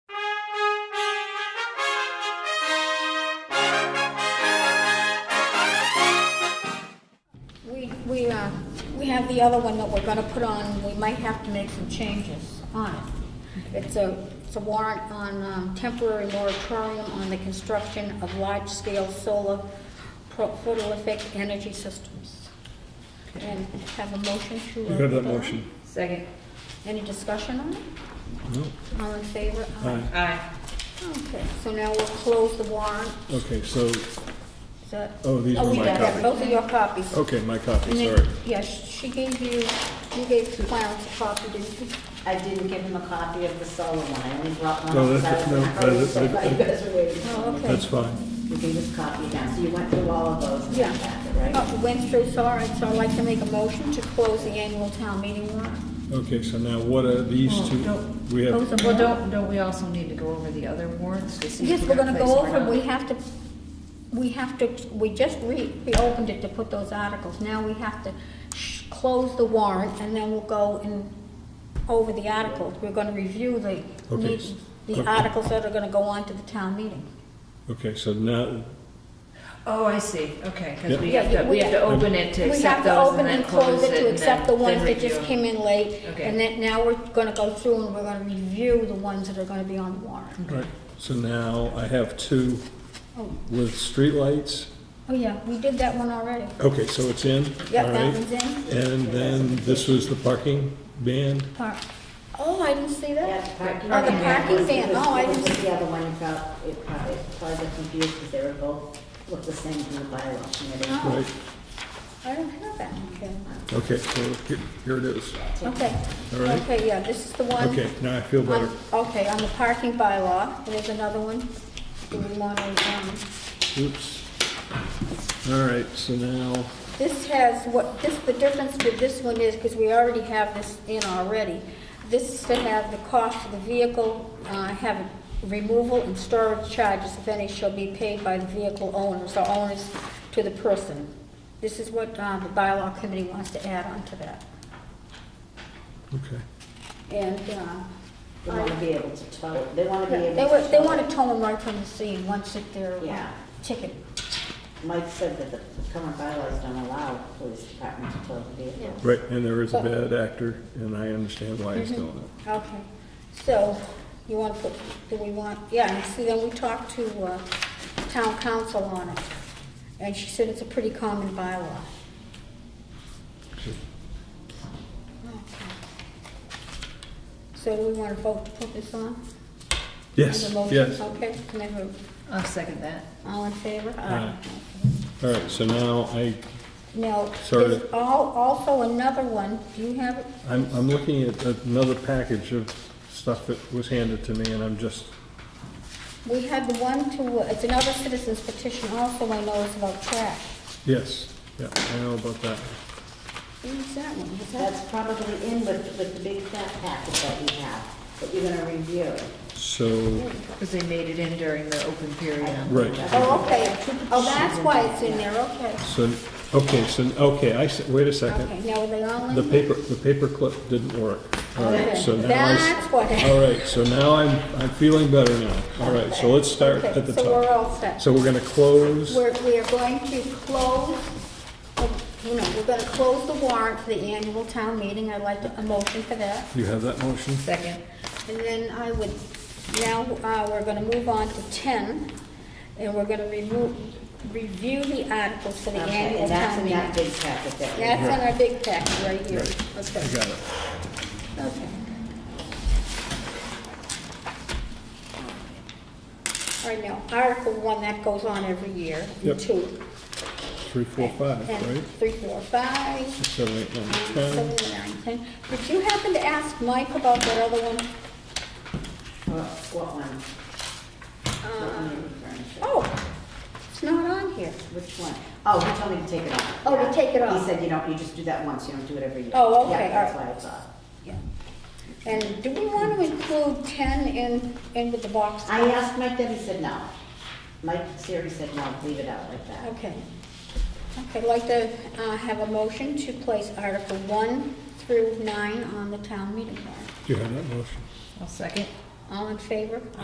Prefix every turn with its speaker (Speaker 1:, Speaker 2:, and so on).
Speaker 1: uh, have the other one that we're gonna put on, we might have to make some changes on it. It's a, it's a warrant on um, temporary moratorium on the construction of large-scale solar pro- photovoltaic energy systems. And have a motion to.
Speaker 2: You have that
Speaker 1: approve.
Speaker 2: motion?
Speaker 3: Second.
Speaker 1: Any discussion on it?
Speaker 2: No.
Speaker 1: All in favor?
Speaker 2: Aye.
Speaker 3: Aye.
Speaker 1: Okay, so now we'll close the warrant.
Speaker 2: Okay, so,
Speaker 1: Is that-
Speaker 2: Oh, these
Speaker 1: Oh,
Speaker 2: were
Speaker 1: we
Speaker 2: my Oh,
Speaker 1: got that.
Speaker 2: copy.
Speaker 1: Both of your copies.
Speaker 2: okay, my copy,
Speaker 1: And then-
Speaker 2: sorry.
Speaker 1: Yes, she gave you, you gave Clarence a copy, didn't you?
Speaker 3: I didn't give him a copy of the solo one, I only brought one.
Speaker 2: No,
Speaker 3: because
Speaker 2: that's-
Speaker 3: I was-
Speaker 2: no,
Speaker 3: I was-
Speaker 2: that- that-
Speaker 3: you guys were waiting.
Speaker 1: Oh, okay.
Speaker 2: That's fine.
Speaker 3: You can just copy it down, so you went through all of those in
Speaker 1: Yeah.
Speaker 3: that packet, right?
Speaker 1: Oh, went through, so all right, so I'd like to make a motion to close the annual town meeting warrant.
Speaker 2: Okay, so now what are these
Speaker 1: Oh,
Speaker 4: Well,
Speaker 2: two?
Speaker 4: don't-
Speaker 2: We have,
Speaker 4: Well, don't, don't we also need to go over the other warrants to see? if
Speaker 1: Yes, we're gonna go
Speaker 4: place them
Speaker 1: over,
Speaker 4: or
Speaker 1: we
Speaker 4: not?
Speaker 1: have to, we have to, we just re, reopened it to put those articles. Now we have to sh- close the warrant and then we'll go and over the articles. We're gonna review the,
Speaker 2: Okay.
Speaker 1: meet- the
Speaker 2: Okay.
Speaker 1: articles that are gonna go on to the town meeting.
Speaker 2: okay, so now,
Speaker 4: Oh, I see, okay,
Speaker 2: Yeah.
Speaker 4: because we
Speaker 1: Yeah,
Speaker 4: have to,
Speaker 1: we-
Speaker 4: we have to open it to
Speaker 1: We have
Speaker 4: accept
Speaker 1: to
Speaker 4: those
Speaker 1: open
Speaker 4: and then
Speaker 1: and
Speaker 4: close it.
Speaker 1: To
Speaker 4: and
Speaker 1: accept the
Speaker 4: then-
Speaker 1: ones
Speaker 4: then
Speaker 1: that just
Speaker 4: review.
Speaker 1: came in late.
Speaker 4: Okay.
Speaker 1: And then now we're gonna go through and we're gonna review the ones that are gonna be on the warrant.
Speaker 2: right, so now I have two
Speaker 1: Oh,
Speaker 2: with streetlights.
Speaker 1: oh yeah, we did that one already.
Speaker 2: Okay, so it's in, all
Speaker 1: Yep, that
Speaker 2: right?
Speaker 1: one's in.
Speaker 2: And then this was the parking ban.
Speaker 1: Park. Oh, I didn't see
Speaker 3: Yeah,
Speaker 1: that.
Speaker 3: parking.
Speaker 1: Oh, the parking ban, oh, I
Speaker 3: It was-
Speaker 1: didn't
Speaker 3: it was
Speaker 1: see.
Speaker 3: The other one, it felt- it probably, it probably got confused because they were both, looked the same from the bylaw committee.
Speaker 1: Oh.
Speaker 2: right?
Speaker 1: I don't have that, okay.
Speaker 2: Okay, so here- here it is.
Speaker 1: Okay.
Speaker 2: All right.
Speaker 1: Okay, yeah, this is the one.
Speaker 2: Okay, now I feel better.
Speaker 1: on- Okay, on the parking bylaw, there's another one. Do we want to, um,
Speaker 2: Oops. All right, so now,
Speaker 1: This has, what, this, the difference with this one is, because we already have this in already, this is to have the cost of the vehicle, uh, have removal and storage charges, if any, shall be paid by the vehicle owners or owners to the person. This is what uh, the bylaw committee wants to add on to that.
Speaker 2: okay.
Speaker 1: And uh,
Speaker 3: They want to be able to tow, they want to be
Speaker 1: they
Speaker 3: able
Speaker 1: wa-
Speaker 3: to.
Speaker 1: they
Speaker 3: tow
Speaker 1: want
Speaker 3: it.
Speaker 1: to tow them right from the scene once that they're
Speaker 3: Yeah.
Speaker 1: ticket.
Speaker 3: Mike said that the current bylaws don't allow police department to tow the vehicle.
Speaker 2: Right, and there
Speaker 1: Oh.
Speaker 2: is a bad actor, and I understand why he's
Speaker 1: Mm-hmm.
Speaker 2: doing it.
Speaker 1: Okay, so you want to put, do we want, yeah, and see, then we talked to uh, town council on it, and she said it's a pretty common bylaw. Okay. So do we want to vote to put this on? As
Speaker 2: Yes,
Speaker 1: a motion?
Speaker 2: yes.
Speaker 1: Okay, can I vote?
Speaker 4: I'll second that.
Speaker 1: All in favor?
Speaker 2: Aye. All right, so now I,
Speaker 1: Now,
Speaker 2: Sorry.
Speaker 1: there's al- also another one, do you have it?
Speaker 2: I'm, I'm looking at another package of stuff that was handed to me, and I'm just,
Speaker 1: We had the one to, uh, it's another citizen's petition also, I know it's about trash.
Speaker 2: yes, yeah, I know about that.
Speaker 1: Who's that one? Is that?
Speaker 3: That's probably in with, with the big fat packet that we have, that you're gonna review.
Speaker 2: So,
Speaker 4: Because they made it in during the open period. on-
Speaker 2: right,
Speaker 1: Oh, okay, oh, that's why it's in there, okay.
Speaker 2: so, okay, so, okay, I, s- wait a
Speaker 1: Okay,
Speaker 2: second.
Speaker 1: now are they all in?
Speaker 2: The paper, the paper clip didn't work. All right, so
Speaker 1: Okay,
Speaker 2: now I s-
Speaker 1: that's what-
Speaker 2: All right, so now I'm, I'm feeling better now. All right, so let's start
Speaker 1: Okay,
Speaker 2: at the
Speaker 1: So we're
Speaker 2: top.
Speaker 1: all set.
Speaker 2: So we're gonna close,
Speaker 1: We're, we are going to close, oh, you know, we're gonna close the warrant for the annual town meeting, I'd like to- a motion for that.
Speaker 2: you have that motion?
Speaker 4: Second.
Speaker 1: And then I would, now, uh, we're gonna move on to ten, and we're gonna remove, review the articles for the
Speaker 3: Okay,
Speaker 1: annual
Speaker 3: and that's
Speaker 1: town
Speaker 3: in
Speaker 1: meeting.
Speaker 3: that big packet that we
Speaker 1: That's in our big pack right here,
Speaker 2: Right. I
Speaker 1: okay,
Speaker 2: got it.
Speaker 1: okay. All right, now, Article one, that goes on every year,
Speaker 2: Yep.
Speaker 1: and two.
Speaker 2: Three, four, five,
Speaker 1: And
Speaker 2: right?
Speaker 1: three, four, five,
Speaker 2: Six, seven, eight, nine,
Speaker 1: seven,
Speaker 2: ten.
Speaker 1: eight, nine, ten. Did you happen to ask Mike about that other one?
Speaker 3: What what one? What one are you referring to?
Speaker 1: Oh, it's not on here.
Speaker 3: Which one? Oh, he told me to take it off.
Speaker 1: Oh, to
Speaker 3: Yeah.
Speaker 1: take it off.
Speaker 3: He said you don't, you just do that once, you don't do it every year.
Speaker 1: Oh, okay,
Speaker 3: Yeah, that's
Speaker 1: all
Speaker 3: why
Speaker 1: right.
Speaker 3: it's off.
Speaker 1: Yeah. And do we want to include ten in, in with the box?
Speaker 3: I uh, asked Mike that, he said no. Mike Siri said no, leave it out like that.
Speaker 1: Okay. Okay, I'd like to uh, have a motion to place Article one through nine on the town meeting warrant.
Speaker 2: Do you have that motion?
Speaker 4: I'll second.
Speaker 1: All in favor?